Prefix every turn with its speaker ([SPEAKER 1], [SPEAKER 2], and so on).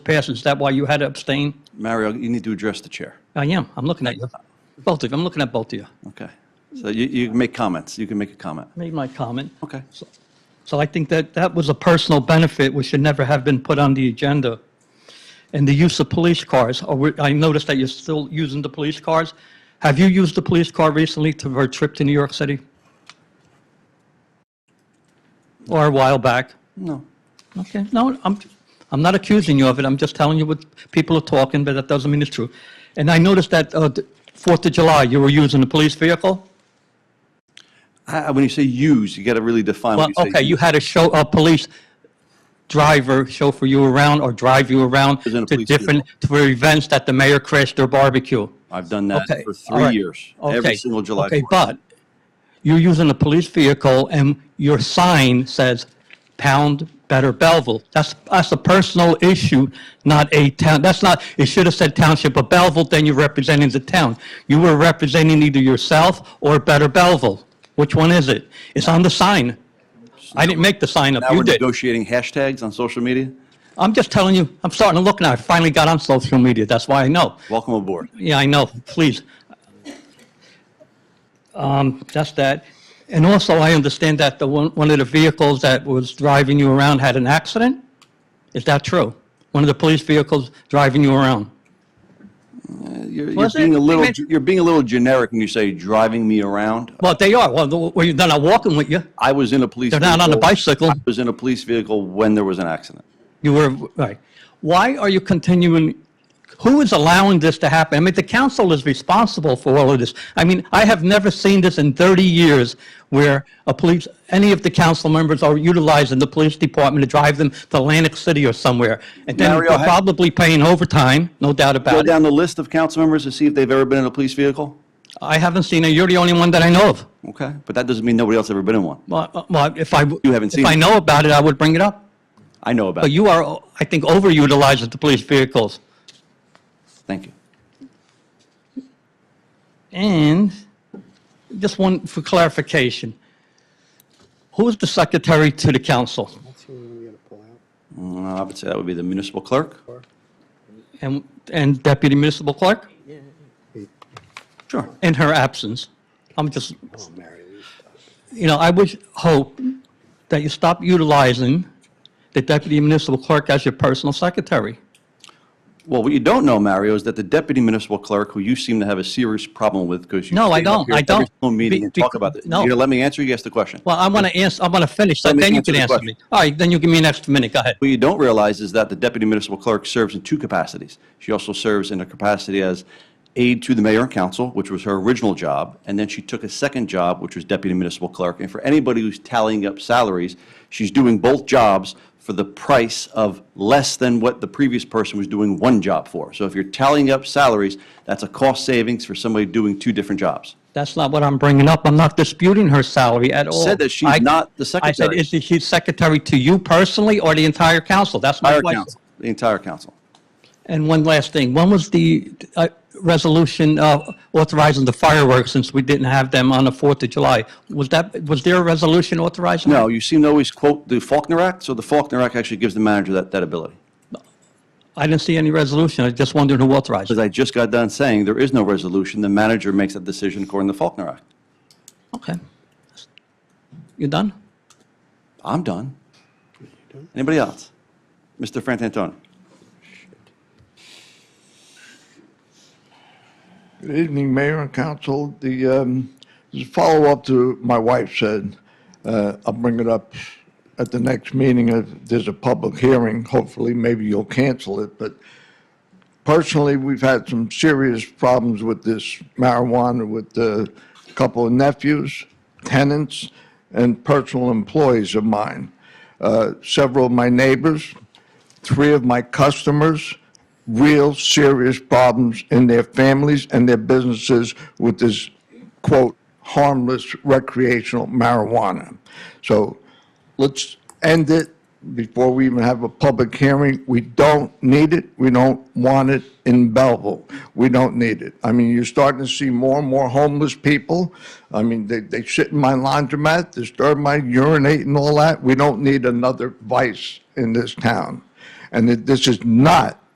[SPEAKER 1] pass. Is that why you had to abstain?
[SPEAKER 2] Mario, you need to address the chair.
[SPEAKER 1] I am. I'm looking at you. Both of you. I'm looking at both of you.
[SPEAKER 2] Okay. So you, you can make comments. You can make a comment.
[SPEAKER 1] Made my comment.
[SPEAKER 2] Okay.
[SPEAKER 1] So I think that that was a personal benefit which should never have been put on the agenda. And the use of police cars, are we- I noticed that you're still using the police cars. Have you used the police car recently to, for a trip to New York City? Or a while back?
[SPEAKER 2] No.
[SPEAKER 1] Okay, no, I'm, I'm not accusing you of it, I'm just telling you what people are talking, but that doesn't mean it's true. And I noticed that uh, the Fourth of July, you were using a police vehicle?
[SPEAKER 2] I- I- When you say use, you got to really define
[SPEAKER 1] Well,
[SPEAKER 2] what you say.
[SPEAKER 1] okay, you had a show, a police driver chauffeur you around or drive you around
[SPEAKER 2] Isn't a
[SPEAKER 1] to
[SPEAKER 2] police
[SPEAKER 1] different, for events that the mayor crashed their barbecue.
[SPEAKER 2] I've done that
[SPEAKER 1] Okay,
[SPEAKER 2] for
[SPEAKER 1] all
[SPEAKER 2] three
[SPEAKER 1] right.
[SPEAKER 2] years, every
[SPEAKER 1] Okay,
[SPEAKER 2] single July
[SPEAKER 1] Okay,
[SPEAKER 2] 4th.
[SPEAKER 1] but you're using a police vehicle and your sign says pound better Belleville. That's, that's a personal issue, not a town, that's not, it should have said township of Belleville, then you're representing the town. You were representing either yourself or better Belleville. Which one is it? It's on the sign. I didn't make the sign up,
[SPEAKER 2] Now
[SPEAKER 1] you
[SPEAKER 2] we're
[SPEAKER 1] did.
[SPEAKER 2] negotiating hashtags on social media.
[SPEAKER 1] I'm just telling you, I'm starting to look now, I finally got on social media, that's why I know.
[SPEAKER 2] Welcome aboard.
[SPEAKER 1] Yeah, I know, please. Um, That's that. And also, I understand that the one, one of the vehicles that was driving you around had an accident? Is that true? One of the police vehicles driving you around?
[SPEAKER 2] You're, you're
[SPEAKER 1] Was
[SPEAKER 2] being
[SPEAKER 1] it?
[SPEAKER 2] a little,
[SPEAKER 1] Wait.
[SPEAKER 2] you're being a little generic when you say driving me around.
[SPEAKER 1] Well, they are, well, the- well, they're not walking with you,
[SPEAKER 2] I was in a police.
[SPEAKER 1] they're not on a
[SPEAKER 2] vehicle-
[SPEAKER 1] bicycle,
[SPEAKER 2] I was in a police vehicle when there was an accident.
[SPEAKER 1] you were, right. Why are you continuing, who is allowing this to happen? I mean, the council is responsible for all of this. I mean, I have never seen this in 30 years where a police, any of the council members are utilizing the police department to drive them to Atlantic City or somewhere. And then
[SPEAKER 2] Mario,
[SPEAKER 1] they're
[SPEAKER 2] ha-
[SPEAKER 1] probably paying overtime, no doubt
[SPEAKER 2] Go
[SPEAKER 1] about it.
[SPEAKER 2] down the list of council members to see if they've ever been in a police vehicle.
[SPEAKER 1] I haven't seen it, you're the only one that I know of.
[SPEAKER 2] Okay, but that doesn't mean nobody else ever been in one.
[SPEAKER 1] Well, uh, Well, if I,
[SPEAKER 2] You haven't seen
[SPEAKER 1] if I
[SPEAKER 2] it.
[SPEAKER 1] know about it, I would bring it up.
[SPEAKER 2] I know about.
[SPEAKER 1] But
[SPEAKER 2] it.
[SPEAKER 1] you are, I think, overutilizing the police vehicles.
[SPEAKER 2] Thank you.
[SPEAKER 1] And just one for clarification. Who's the secretary to the council?
[SPEAKER 3] That's the one we gotta pull out.
[SPEAKER 2] Mm, I would say that would be the municipal clerk.
[SPEAKER 1] And, and deputy municipal clerk?
[SPEAKER 2] Sure.
[SPEAKER 1] In her absence. I'm just,
[SPEAKER 3] Oh, Mary Lou.
[SPEAKER 1] you know, I would hope that you stop utilizing the deputy municipal clerk as your personal secretary.
[SPEAKER 2] Well, what you don't know, Mario, is that the deputy municipal clerk, who you seem to have a serious problem with because you.
[SPEAKER 1] No, I
[SPEAKER 2] stand up
[SPEAKER 1] don't.
[SPEAKER 2] here
[SPEAKER 1] I
[SPEAKER 2] at every
[SPEAKER 1] don't.
[SPEAKER 2] single meeting
[SPEAKER 1] Be-
[SPEAKER 2] and
[SPEAKER 1] be-
[SPEAKER 2] talk about this.
[SPEAKER 1] no.
[SPEAKER 2] You gonna let me answer, you ask the question.
[SPEAKER 1] Well, I want to answer, I want to finish, so
[SPEAKER 2] Let me
[SPEAKER 1] then you
[SPEAKER 2] answer
[SPEAKER 1] can
[SPEAKER 2] the
[SPEAKER 1] answer
[SPEAKER 2] question.
[SPEAKER 1] me. All right, then you give me an extra minute, go ahead.
[SPEAKER 2] What you don't realize is that the deputy municipal clerk serves in two capacities. She also serves in a capacity as aide to the mayor and council, which was her original job, and then she took a second job, which was deputy municipal clerk. And for anybody who's tallying up salaries, she's doing both jobs for the price of less than what the previous person was doing one job for. So if you're tallying up salaries, that's a cost savings for somebody doing two different jobs.
[SPEAKER 1] That's not what I'm bringing up. I'm not disputing her salary at all.
[SPEAKER 2] Said that she's
[SPEAKER 1] I-
[SPEAKER 2] not the
[SPEAKER 1] I said,
[SPEAKER 2] secretary.
[SPEAKER 1] is she secretary to you personally or the entire council? That's my
[SPEAKER 2] Entire
[SPEAKER 1] question.
[SPEAKER 2] council, the entire council.
[SPEAKER 1] And one last thing, when was the uh, resolution uh, authorizing the fireworks, since we didn't have them on the 4th of July? Was that, was there a resolution authorizing?
[SPEAKER 2] No, you seem to always quote the Faulkner Act, so the Faulkner Act actually gives the manager that, that ability.
[SPEAKER 1] I didn't see any resolution, I just wondered who authorized
[SPEAKER 2] As
[SPEAKER 1] it.
[SPEAKER 2] I just got done saying, there is no resolution. The manager makes that decision according to the Faulkner Act.
[SPEAKER 1] Okay. You done?
[SPEAKER 2] I'm done. Anybody else? Mr. Frantantoni?
[SPEAKER 4] Good evening, Mayor and Council. The, um, this is a follow-up to what my wife said, Uh, I'll bring it up at the next meeting if there's a public hearing. Hopefully, maybe you'll cancel it, but personally, we've had some serious problems with this marijuana with a couple of nephews, tenants, and personal employees of mine. Uh, Several of my neighbors, three of my customers, real serious problems in their families and their businesses with this, quote, harmless recreational marijuana. So let's end it before we even have a public hearing. We don't need it. We don't want it in Belleville. We don't need it. I mean, you're starting to see more and more homeless people. I mean, they, they sit in my laundromat, disturb my urinate and all that. We don't need another vice in this town. and that this is not